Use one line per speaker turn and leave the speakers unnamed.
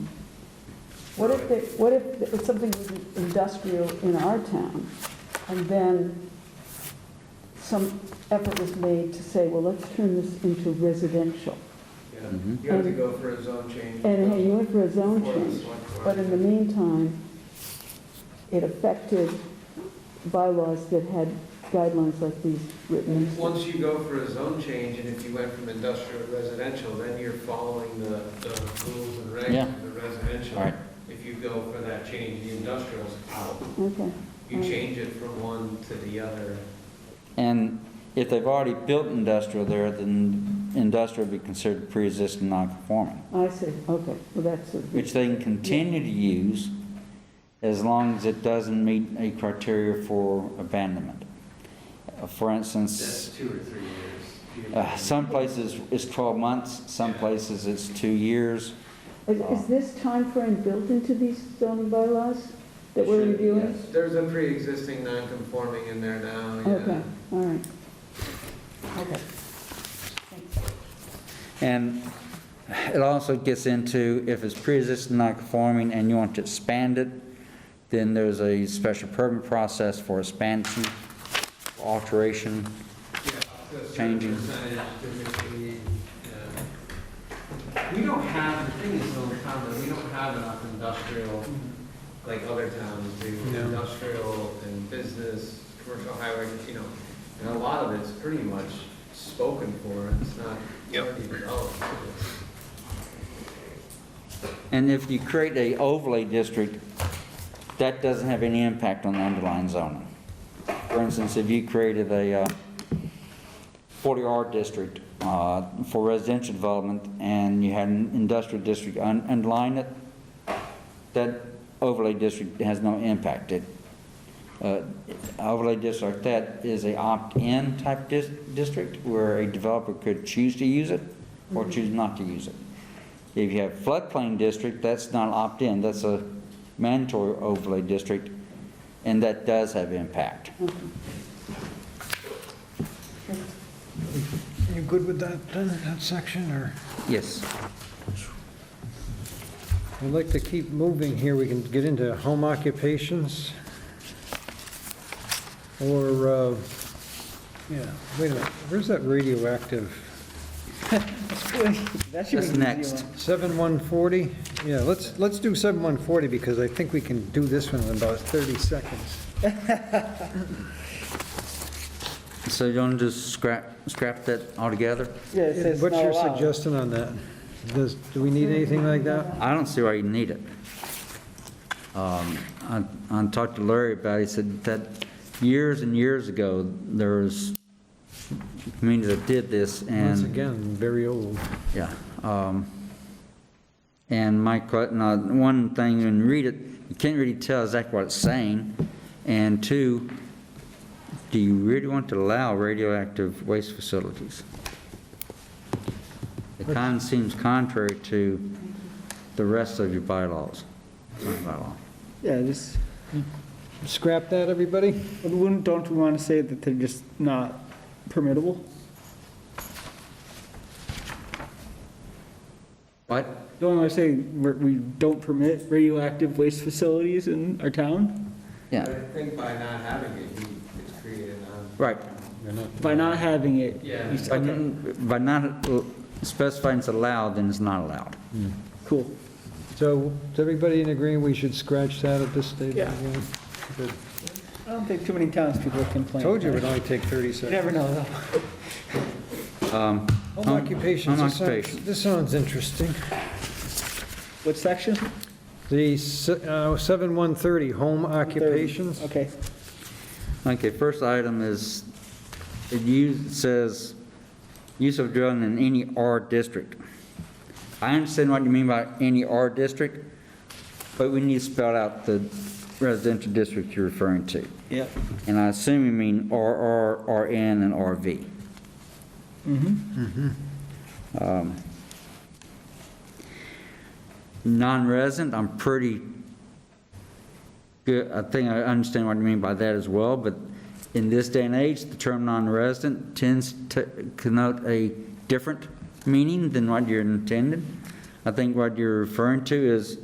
What if, they- what if it's something was industrial in our town, and then some effort was made to say, well, let's turn this into residential?
Yeah,
Mhm.
you have to go for a zone change.
Mm-hmm. And hey, you went for a zone
before the
change,
select board.
but in the meantime, it affected bylaws that had guidelines like these written.
Once you go for a zone change, and if you went from industrial to residential, then you're following the, the rules and
Yeah.
regs of the residential.
All right.
If you go for that change, the industrial's out.
Okay,
You change it from one to the other.
And if they've already built industrial there, then industrial would be considered pre-existing non-conforming,
I see, okay, well, that's, a-
which they can continue to use as long as it doesn't meet a criteria for abandonment. Uh, For
That's
instance,
two or three years.
uh, some places it's 12 months, some places it's two years.
is is this timeframe built into these zoning bylaws that we're
Should-
reviewing?
yes. There's a pre-existing non-conforming in there now, yeah.
Okay, all right. Okay.
And it also gets into if it's pre-existing non-conforming and you want to expand it, then there's a special permit process for expansion, alteration.
Yeah, the certain
Changing.
percentage typically, yeah. We don't have, the thing is, though, Tom, that we don't have enough industrial, like other towns do, industrial and business, commercial highway, you know, and a lot of it's pretty much spoken for, it's not already developed.
And if you create a overlay district, that doesn't have any impact on the underlying zoning. For instance, if you created a 40R district uh, for residential development and you had an industrial district un- underlying it, that overlay district has no impact. It, uh, Overlay district like that is a opt-in type dis- district where a developer could choose to use it or
Mm-hmm.
choose not to use it. If you have floodplain district, that's not opt-in, that's a mandatory overlay district, and that does have impact.
You good with that, uh, that section, or?
Yes.
I'd like to keep moving here, we can get into home occupations. Or, uh, yeah, wait a minute, where's that radioactive?
That should be
That's
an easy
next.
one.
7140? Yeah, let's, let's do 7140, because I think we can do this one in about 30 seconds.
So you want to just scrap, scrap that altogether?
Yeah, it says
What's
not
your
allowed.
suggestion on that? Does, do we need anything like that?
I don't see why you need it. Um, I I talked to Larry about it, he said that years and years ago, there was communities that did this,
Once
and
again, very old.
Yeah. um, And my, que- now, one thing, when you read it, you can't really tell exactly what it's saying. And two, do you really want to allow radioactive waste facilities? It kind of seems contrary to the rest of your bylaws. Sorry, bylaw.
Yeah, just,
Scrap that, everybody?
wouldn't, don't we want to say that they're just not permittable?
What?
Don't want to say we're- we don't permit radioactive waste facilities in our town?
But
Yeah,
I think by not having it, you- it's created um, on.
right.
You're not-
By not having it?
Yeah.
we s-
By
Okay,
by not uh, specifying it's allowed, then it's not allowed.
cool.
So, is everybody in agreement we should scratch that at this stage?
Yeah.
Good.
I don't think too many townspeople complain.
Told you it would only take 30
You
seconds.
never know, though.
Um,
Home occupations,
Home
this sounds,
occupation.
this sounds interesting.
What section?
The s- uh, 7130, home occupations,
Okay,
Okay, first item is, it use- it says, use of drilling in any R district. I understand what you mean by any R district, but we need to spell out the residential district you're referring to.
yep.
And I assume you mean RR, RN, and RV.
Mm-hmm,
Um, Non-resident, I'm pretty good, I think I understand what you mean by that as well, but in this day and age, the term non-resident tends to connote a different meaning than what you're intended. I think what you're referring to is